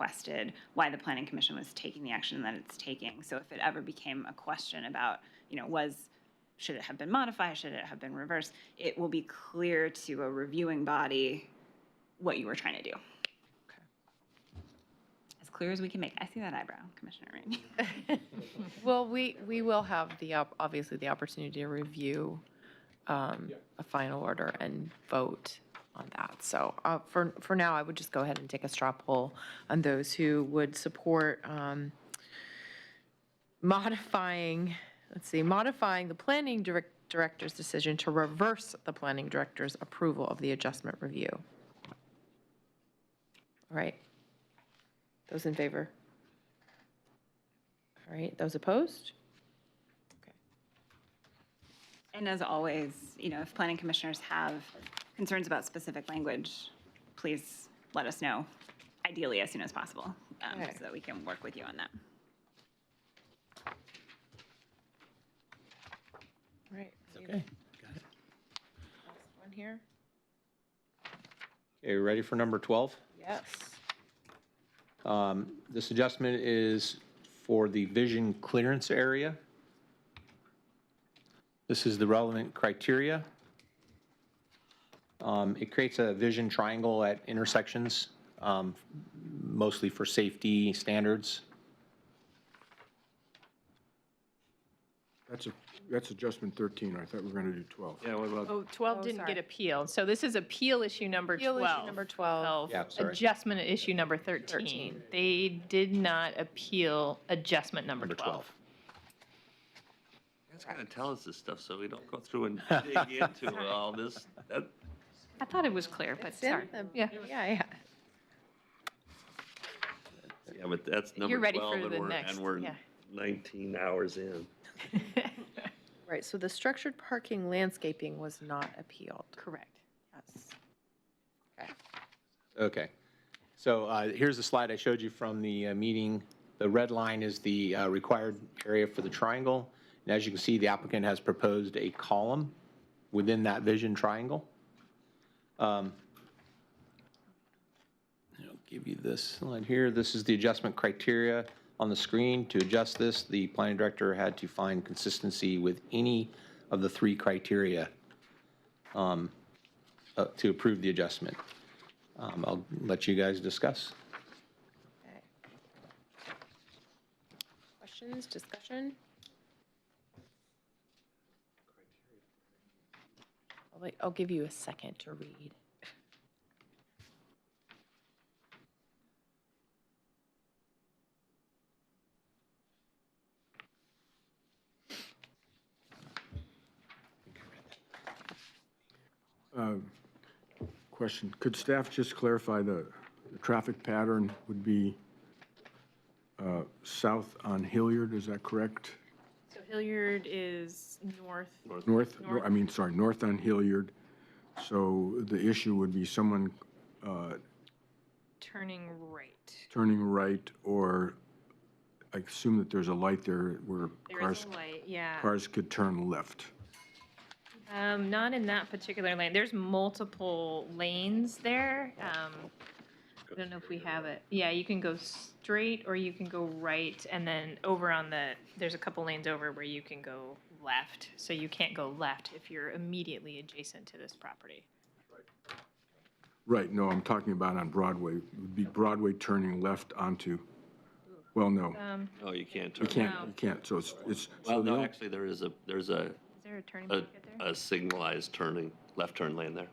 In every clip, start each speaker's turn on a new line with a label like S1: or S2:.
S1: requested why the planning commission was taking the action that it's taking. So if it ever became a question about, you know, was, should it have been modified, should it have been reversed, it will be clear to a reviewing body what you were trying to do. As clear as we can make. I see that eyebrow, Commissioner Rainey.
S2: Well, we, we will have the, op- obviously, the opportunity to review um, a final order and vote on that. So uh, for, for now, I would just go ahead and take a straw poll on those who would support um, modifying, let's see, modifying the planning direc- director's decision to reverse the planning director's approval of the adjustment review. All right. Those in favor? All right, those opposed?
S1: And as always, you know, if planning commissioners have concerns about specific language, please let us know, ideally as soon as possible, um,
S2: Okay.
S1: so that we can work with you on that.
S2: All right.
S3: Okay, got it.
S2: One here?
S3: Okay, you ready for number 12?
S2: Yes.
S3: Um, This adjustment is for the vision clearance area. This is the relevant criteria. Um, It creates a vision triangle at intersections, um, mostly for safety standards.
S4: That's a, that's adjustment 13, I thought we were going to do 12.
S5: Yeah, what about,
S6: Oh, 12
S2: Oh,
S6: didn't
S2: sorry.
S6: get appealed, so this is appeal issue number 12.
S2: Appeal issue number 12.
S3: Yeah, sorry.
S6: Adjustment issue number 13. They did not appeal adjustment number 12.
S5: it's gonna tell us this stuff so we don't go through and dig into all this. That-
S6: I thought it was clear, but
S2: It's in
S6: sorry.
S2: the-
S6: Yeah,
S2: Yeah, yeah.
S5: Yeah, but that's number
S6: You're ready
S5: 12
S6: for
S5: and
S6: the
S5: we're-
S6: next,
S5: And we're
S6: yeah.
S5: 19 hours in.
S2: Right, so the structured parking landscaping was not appealed.
S6: correct.
S2: Yes.
S3: Okay. So uh, here's the slide I showed you from the uh, meeting. The red line is the uh, required area for the triangle. And as you can see, the applicant has proposed a column within that vision triangle. Um, I'll give you this slide here. This is the adjustment criteria on the screen. To adjust this, the planning director had to find consistency with any of the three criteria um, uh, to approve the adjustment. Um, I'll let you guys discuss.
S2: Okay. Questions, discussion? I'll wait- I'll give you a second to read.
S4: Um, Question, could staff just clarify the, the traffic pattern would be uh, south on Hilliard, is that correct?
S7: So Hilliard is north.
S4: North, no, I mean, sorry, north on Hilliard. So the issue would be someone uh,
S7: Turning right.
S4: turning right or I assume that there's a light there where
S7: There is
S4: cars,
S7: a light, yeah.
S4: cars could turn left.
S7: Um, not in that particular lane. There's multiple lanes there. Um, I don't know if we have it. Yeah, you can go straight or you can go right and then over on the, there's a couple lanes over where you can go left. So you can't go left if you're immediately adjacent to this property.
S4: Right, no, I'm talking about on Broadway, would be Broadway turning left onto, well, no.
S7: Um,
S5: No, Oh, you can't turn.
S4: You can't,
S7: No.
S4: you can't, so it's, it's. so
S5: Well,
S4: the
S5: no,
S4: only-
S5: actually, there is a, there's a,
S7: is there a turning
S5: a
S7: pocket there?
S5: a signalized turning, left turn lane there.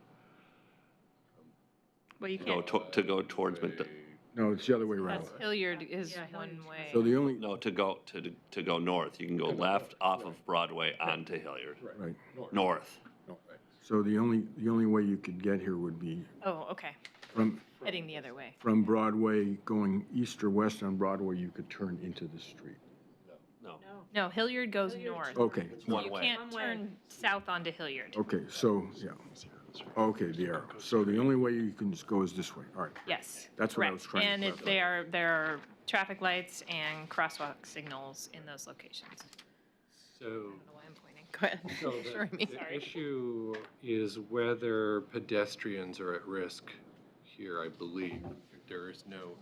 S7: Well, you
S5: To go
S7: can't.
S5: to to go towards, Mc-
S4: No, it's the other way around.
S6: That's Hilliard is
S7: Yeah, Hilliard's
S6: one way.
S4: So the only,
S5: no, to go, to to go north. You can go left off of Broadway onto Hilliard,
S4: right,
S5: north.
S4: so the only, the only way you could get here would be
S7: Oh, okay.
S4: from,
S7: Heading the other way.
S4: from Broadway, going east or west on Broadway, you could turn into the street.
S5: No,
S7: No, Hilliard goes north.
S4: Okay,
S5: it's Oh, one
S7: You
S5: way.
S7: can't turn south onto Hilliard.
S4: okay, so, yeah, okay, the arrow. So the only way you can just go is this way, all right.
S7: Yes.
S4: That's what I was
S7: correct.
S4: trying to
S7: And it-
S4: clarify.
S7: they are, there are traffic lights and crosswalk signals in those locations. I
S8: So,
S7: don't know why I'm pointing.
S2: Go ahead.
S8: so the-
S2: Sorry, me.
S8: the issue is whether pedestrians are at risk here, I believe. There is no